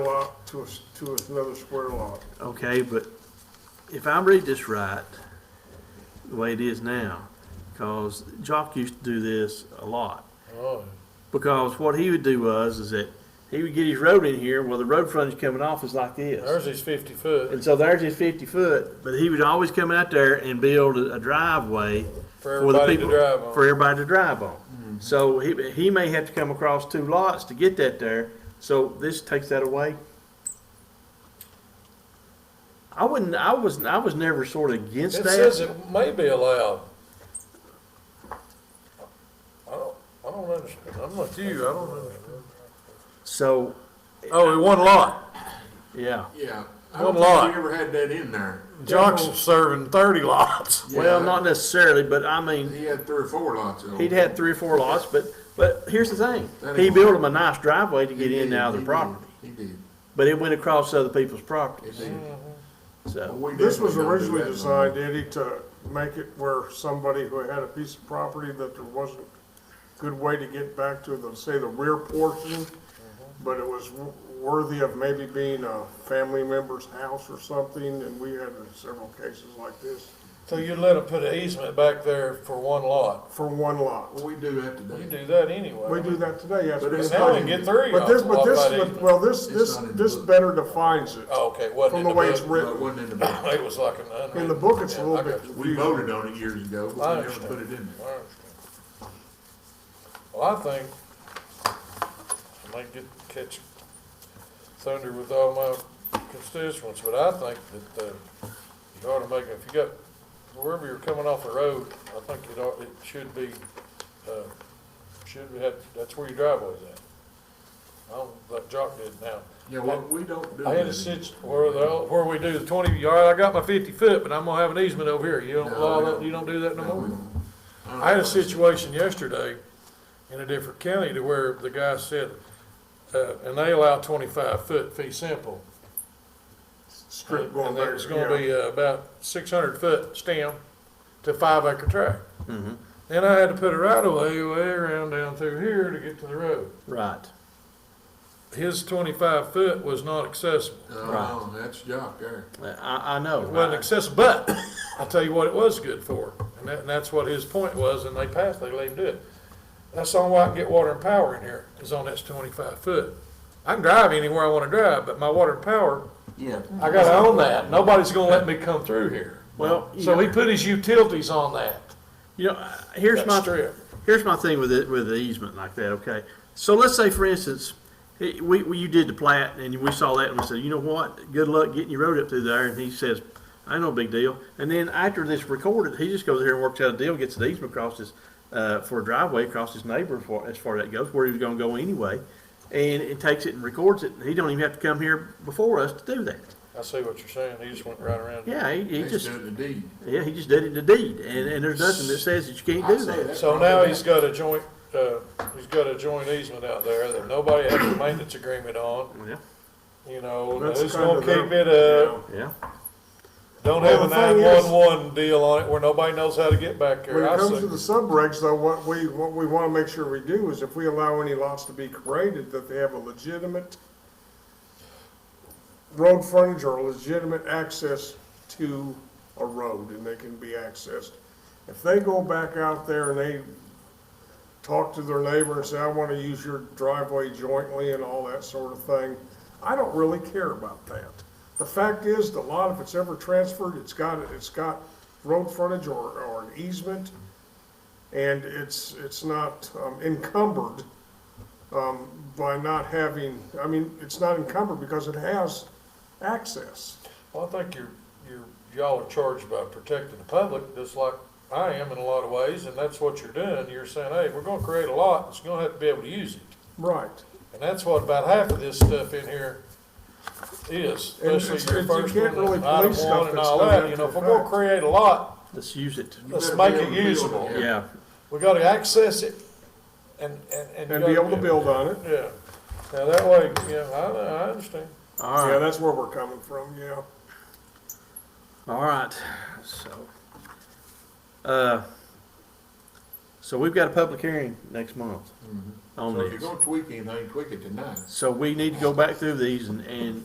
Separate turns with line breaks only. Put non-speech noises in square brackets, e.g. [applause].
lot to, a s- to another square lot.
Okay, but if I read this right, the way it is now, because Jock used to do this a lot.
Oh,
Because what he would do was, is that he would get his road in here, well, the road frontage coming off is like this.
ours is fifty foot
And so there's his fifty foot, but he would always come out there and build a a driveway
for
for the
everybody to
people,
drive
for
on. Mm-hmm.
everybody to drive on. So he, he may have to come across two lots to get that there, so this takes that away. I wouldn't, I was, I was never sort of
It
against
says
that.
it may be allowed. I don't, I don't understand, I'm like you, I don't understand.
So,
Oh, in one lot,
yeah,
Yeah. I
One
don't think
lot.
we ever had that in there.
Jock's serving thirty lots.
well, not necessarily, but I mean,
He had three or four lots of them.
he'd had three or four lots, but, but here's the thing.
That
He
ain't-
built him a nice driveway to
He
get in and
did,
out of
he
their
did,
property,
He did,
but it went across other people's
he
properties,
did. But
so,
we
This was
definitely don't do
originally
that no
designed, Eddie, to make it where somebody who had a piece of property that there wasn't good way to get back to the, say, the rear portion,
Mm-hmm.
but it was w- worthy of maybe being a family member's house or something, and we had several cases like this
So you let them put an easement back there for one lot.
for one lot.
more. Well, we do that
You
today.
do that anyway.
We do that today, yes.
But
we
it's
do.
not
Now we can get three.
But this,
on
but
lot
this,
by
was-
easement.
well, this,
It's
this,
not in the
this
book.
better defines it.
Oh, Okay, it wasn't
From
in
the
the
way it's
book.
Well, it
written.
wasn't in the book.
[laughs] It was like an unwritten.
In the book, it's a
Yeah,
little
I got
bit
you.
We
confusing.
voted on it years ago,
I
but we never
understand.
put it in there.
I understand. Well, I think I might get catch thunder with all my constituents, but I think that uh, you ought to make if you got wherever you're coming off the road, I think it ought, it should be uh, should be have that's where your driveway's at. I don't like Jock did now.
Yeah, well, we don't do that.
I had a
anymore.
sit where the, where we do the twenty yard, I got my fifty foot, but I'm gonna have an easement over here. You don't
No,
allow
we
that,
don't.
you don't do that no
No, we
more?
don't. don't
I had a
know.
situation yesterday in a different county to where the guy said, uh, and they allow twenty-five foot fee simple.
Strip
And
going there.
there's gonna
yeah.
be uh, about six hundred foot stem to five acre tract. Then I had to put a right of way way around down through here to get to the road.
right.
His twenty-five foot was not accessible.
Oh, that's Jock there.
I, I know,
It wasn't
right?
accessible, but [coughs] I'll tell you what it was good for. And that, and that's what his point was, and they passed, they let him do it. That's the only way I can get water and power in here, is on this twenty-five foot. I can drive anywhere I wanna drive, but my water and power,
Yeah.
I gotta own that. Nobody's gonna let me come through here.
Well, you
So he
know-
put his utilities on that.
You know, uh, here's
That
my,
strip.
here's my thing with it, with the easement like that, okay? So let's say, for instance, eh, we, we, you did the plat and we saw that and we said, you know what? Good luck getting your road up through there. And he says, I know, big deal. And then after this recorded, he just goes here and works out a deal, gets the easement across his, uh, for a driveway across his neighbor as far, as far as that goes, where he was gonna go anyway. And it takes it and records it. and He don't even have to come here before us to do that.
I see what you're saying. He just went right around.
Yeah, he, he
They
just,
said the deed.
yeah, he just did it in the deed. And, and there's nothing that says that you can't
I'd
do
say
that.
that
So
probably
now
that-
he's got a joint, uh, he's got a joint easement out there that nobody has a maintenance agreement on,
Yeah,
you know,
That's
who's
kind
gonna
of their-
keep it uh, up?
yeah.
Don't have
Well,
a
the thing is-
nine-one-one deal on it where nobody knows how to get back
When
there. I
it comes
see.
to the subregs, though, what we, what we want to make sure we do is if we allow any lots to be created, that they have a legitimate road frontage or legitimate access to a road and they can be accessed. If they go back out there and they talk to their neighbor and say, I want to use your driveway jointly and all that sort of thing, I don't really care about that. The fact is, the lot, if it's ever transferred, it's got, it's got road frontage or, or an easement, and it's, it's not um, encumbered um, by not having, I mean, it's not encumbered because it has access.
Well, I think you're, you're, y'all are charged by protecting the public, just like I am in a lot of ways, and that's what you're doing. You're saying, hey, we're gonna create a lot, it's gonna have to be able to use it.
Right.
And that's what about half of this stuff in here is,
And
especially
it's-
your
it's- you
first
can't really
one, item
police stuff
one and
that's
all
done
that,
after
you know, if
the
we're gonna
fact.
create a lot,
Let's use it.
You
let's
better
make
be
it
able to build
usable.
it,
Yeah,
we gotta access it and, and, and. you
And be
gotta-
able to build on it.
Yeah, now that way, yeah, I, I understand.
all
Yeah,
right,
that's where we're coming from, yeah.
all right, so, uh, So we've got a public hearing next month on
So if you're
this.
gonna tweak anything, tweak it tonight.
So we need to go back through these and, and